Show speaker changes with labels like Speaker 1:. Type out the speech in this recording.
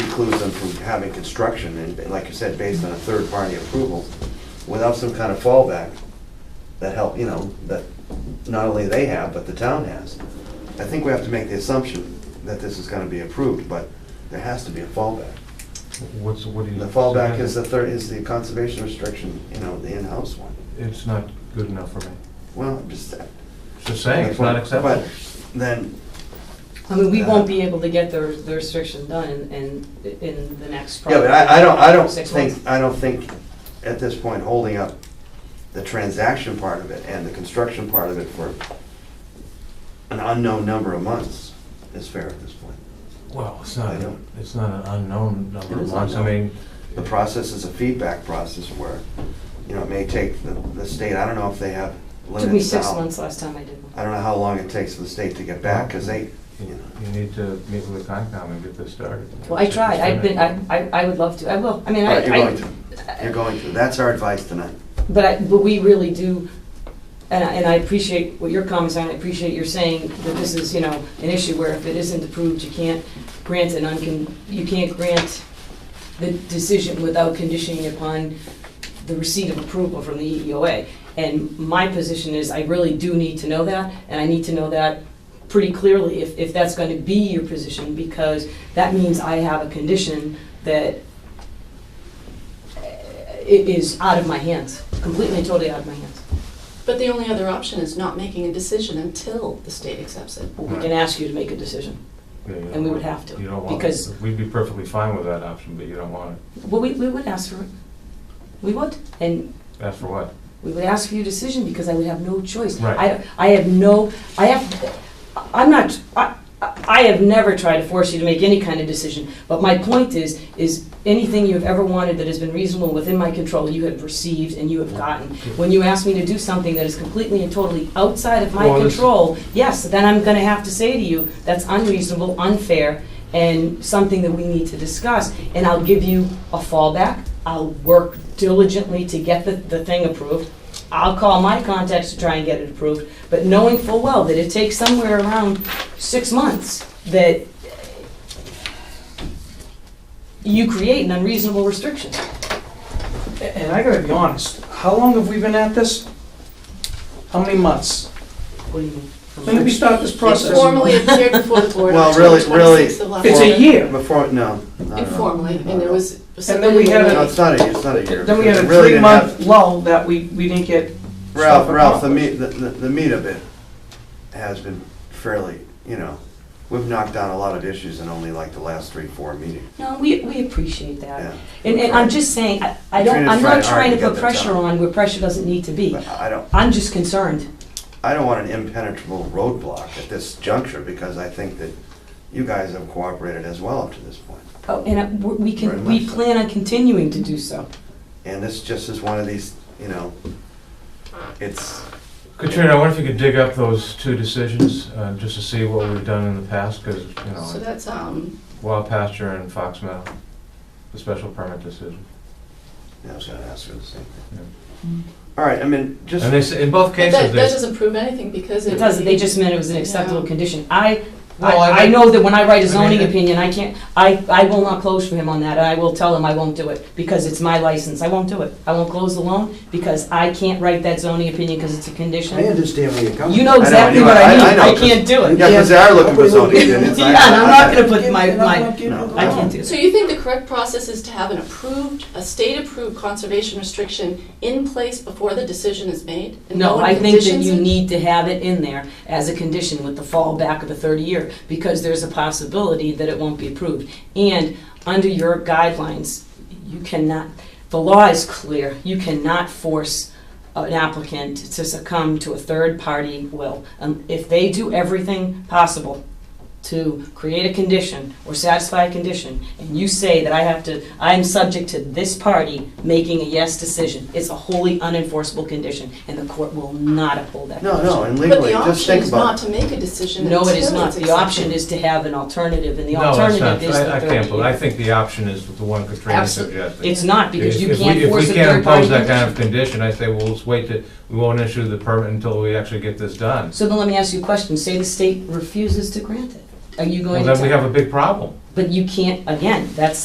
Speaker 1: precludes them from having construction, and like you said, based on a third-party approval, without some kind of fallback that help, you know, that not only they have, but the town has. I think we have to make the assumption that this is gonna be approved, but there has to be a fallback.
Speaker 2: What's, what do you?
Speaker 1: The fallback is the third, is the conservation restriction, you know, the in-house one.
Speaker 2: It's not good enough for me.
Speaker 1: Well, I'm just.
Speaker 2: Just saying, it's not acceptable.
Speaker 1: But Then,
Speaker 3: I mean, we won't be able to get the the restriction done in, in- in the next.
Speaker 1: yeah, but I, I don't, I don't
Speaker 3: Six
Speaker 1: think,
Speaker 3: months.
Speaker 1: I don't think at this point, holding up the transaction part of it and the construction part of it for an unknown number of months is fair at this point.
Speaker 2: Well, it's
Speaker 1: I
Speaker 2: not,
Speaker 1: don't.
Speaker 2: it's not an unknown number
Speaker 1: It
Speaker 2: of
Speaker 1: is
Speaker 2: months, I
Speaker 1: unknown.
Speaker 2: mean,
Speaker 1: The process is a feedback process where, you know, it may take the, the state, I don't know if they have limits now.
Speaker 3: Took me six months last time I did one.
Speaker 1: I don't know how long it takes for the state to get back, because they, you
Speaker 2: you
Speaker 1: know.
Speaker 2: you need to meet with Concom and get this started.
Speaker 3: Well, I tried, I've been, I, I I would love to, I will, I mean, I.
Speaker 1: But you're
Speaker 3: I-
Speaker 1: going to, you're going to, that's our advice tonight.
Speaker 3: But I, but we really do, and I, and I appreciate what your comments are, and I appreciate your saying that this is, you know, an issue where if it isn't approved, you can't grant an uncon, you can't grant the decision without conditioning upon the receipt of approval from the E EEOA. And my position is I really do need to know that, and I need to know that pretty clearly if, if that's gonna be your position, because that means I have a condition that it is out of my hands, completely and totally out of my hands.
Speaker 4: But the only other option is not making a decision until the state accepts it.
Speaker 3: We can ask you to make a decision. and we would have to,
Speaker 2: You don't want
Speaker 3: because-
Speaker 2: it. We'd be perfectly fine with that option, but you don't want it.
Speaker 3: Well, we, we would ask for it. We would, and
Speaker 2: That's for what?
Speaker 3: we would ask for your decision because I would have no choice.
Speaker 2: Right.
Speaker 3: I, I have no, I have, I'm not, I, I have never tried to force you to make any kind of decision. But my point is, is anything you've ever wanted that has been reasonable within my control, you have received and you have gotten. When you ask me to do something that is completely and totally outside of my
Speaker 2: Well, this-
Speaker 3: control, Oh, yes, then I'm gonna have to say to you, that's unreasonable, unfair, and something that we need to discuss. And I'll give you a fallback, I'll work diligently to get the, the thing approved. I'll call my contacts to try and get it approved, but knowing full well that it takes somewhere around six months, that you create an unreasonable restriction.
Speaker 5: And I gotta be honest, how long have we been at this? How many months?
Speaker 3: What do you mean?
Speaker 5: When did we start this process?
Speaker 4: Formally appeared before the board. on
Speaker 1: Well, really-
Speaker 4: October
Speaker 1: really,
Speaker 4: 26th of last
Speaker 5: It's
Speaker 4: year.
Speaker 5: a year.
Speaker 1: Before, no. no, no.
Speaker 4: Informally, and there was.
Speaker 5: And then we had
Speaker 1: No,
Speaker 5: a-
Speaker 1: it's not a, it's not a year.
Speaker 5: Then we had
Speaker 1: because
Speaker 5: a
Speaker 1: it really didn't
Speaker 5: three-month
Speaker 1: have-
Speaker 5: lull that we, we didn't get.
Speaker 1: Ralph,
Speaker 5: stuff
Speaker 1: Ralph, the
Speaker 5: accomplished.
Speaker 1: meat, the, the the meat of it has been fairly, you know, we've knocked down a lot of issues in only like the last three, four meetings.
Speaker 3: No, we, we appreciate that.
Speaker 1: Yeah.
Speaker 3: And, and I'm just saying, I- I don't,
Speaker 1: Katrina's trying
Speaker 3: I'm not
Speaker 1: hard
Speaker 3: trying
Speaker 1: to
Speaker 3: to
Speaker 1: get
Speaker 3: put
Speaker 1: that
Speaker 3: pressure
Speaker 1: done.
Speaker 3: on where pressure doesn't need to be.
Speaker 1: But I don't,
Speaker 3: I'm just concerned.
Speaker 1: I don't want an impenetrable roadblock at this juncture because I think that you guys have cooperated as well up to this point.
Speaker 3: Oh, And I- we- we
Speaker 1: Very
Speaker 3: can,
Speaker 1: much
Speaker 3: we
Speaker 1: so.
Speaker 3: plan on continuing to do so.
Speaker 1: And this just is one of these, you know, it's,
Speaker 2: Katrina, I wonder if you could dig up those two decisions, uh, just to see what we've done in the past, because, you
Speaker 4: So
Speaker 2: know,
Speaker 4: that's, um,
Speaker 2: Wild Pasture and Fox Meadow, the special permit decision.
Speaker 1: yeah, I was gonna ask her the same
Speaker 2: Yeah.
Speaker 1: thing. All right, I mean, just.
Speaker 2: And they, s- in both
Speaker 4: but
Speaker 2: cases,
Speaker 4: that, that
Speaker 2: they,
Speaker 4: doesn't prove anything because it.
Speaker 3: It doesn't, they just meant it was an acceptable
Speaker 4: Yeah.
Speaker 3: condition. I,
Speaker 2: Well, I-
Speaker 3: I, I know that when I write
Speaker 2: I mean,
Speaker 3: a zoning
Speaker 2: it-
Speaker 3: opinion, I can't, I, I will not close for him on that, and I will tell him I won't do it, because it's my license, I won't do it. I won't close the loan, because I can't write that zoning opinion, because it's a
Speaker 6: I
Speaker 3: condition.
Speaker 6: understand where you're coming from.
Speaker 3: You know exactly
Speaker 1: anyway,
Speaker 3: what
Speaker 1: I-
Speaker 3: I mean,
Speaker 1: I know,
Speaker 3: I
Speaker 1: 'cause-
Speaker 3: can't do it.
Speaker 1: Yeah, because they are looking for zoning opinions. I-
Speaker 3: Yeah, and I'm not
Speaker 1: I-
Speaker 3: gonna put my, my, I can't do
Speaker 4: So
Speaker 3: that.
Speaker 4: you think the correct process is to have an approved, a state-approved conservation restriction in place before the decision is made? and
Speaker 3: No,
Speaker 4: one
Speaker 3: I think that
Speaker 4: conditions
Speaker 3: you
Speaker 4: it?
Speaker 3: need to have it in there as a condition with the fallback of a third year, because there's a possibility that it won't be approved. And under your guidelines, you cannot, the law is clear, you cannot force an applicant to succumb to a third-party will. Um, If they do everything possible to create a condition or satisfy a condition, and you say that I have to, I am subject to this party making a yes decision, it's a wholly unenforceable condition, and the court will not uphold that.
Speaker 1: No, no, and
Speaker 4: But
Speaker 1: legally,
Speaker 4: the
Speaker 1: just
Speaker 4: option
Speaker 1: think
Speaker 4: is not
Speaker 1: about it.
Speaker 4: to make a decision until
Speaker 3: No, it
Speaker 4: it's
Speaker 3: is not.
Speaker 4: accepted.
Speaker 3: The option is to have an alternative, and the
Speaker 2: no, it's
Speaker 3: alternative
Speaker 2: not,
Speaker 3: is
Speaker 2: I, I
Speaker 3: the
Speaker 2: can't,
Speaker 3: third
Speaker 2: believe- I
Speaker 3: year.
Speaker 2: think the option is the one Katrina
Speaker 3: Absol-
Speaker 2: suggested.
Speaker 3: It's not, because
Speaker 2: If-
Speaker 3: you
Speaker 2: if we-
Speaker 3: can't force a
Speaker 2: If we can't
Speaker 3: third-party
Speaker 2: impose that kind of
Speaker 3: condition.
Speaker 2: condition, I say, well, let's wait to, we won't issue the permit until we actually get this done.
Speaker 3: So then let me ask you a question. Say the state refuses to grant it. Are you
Speaker 2: Well,
Speaker 3: going to
Speaker 2: then we
Speaker 3: tell?
Speaker 2: have a big problem.
Speaker 3: But you can't, again, that's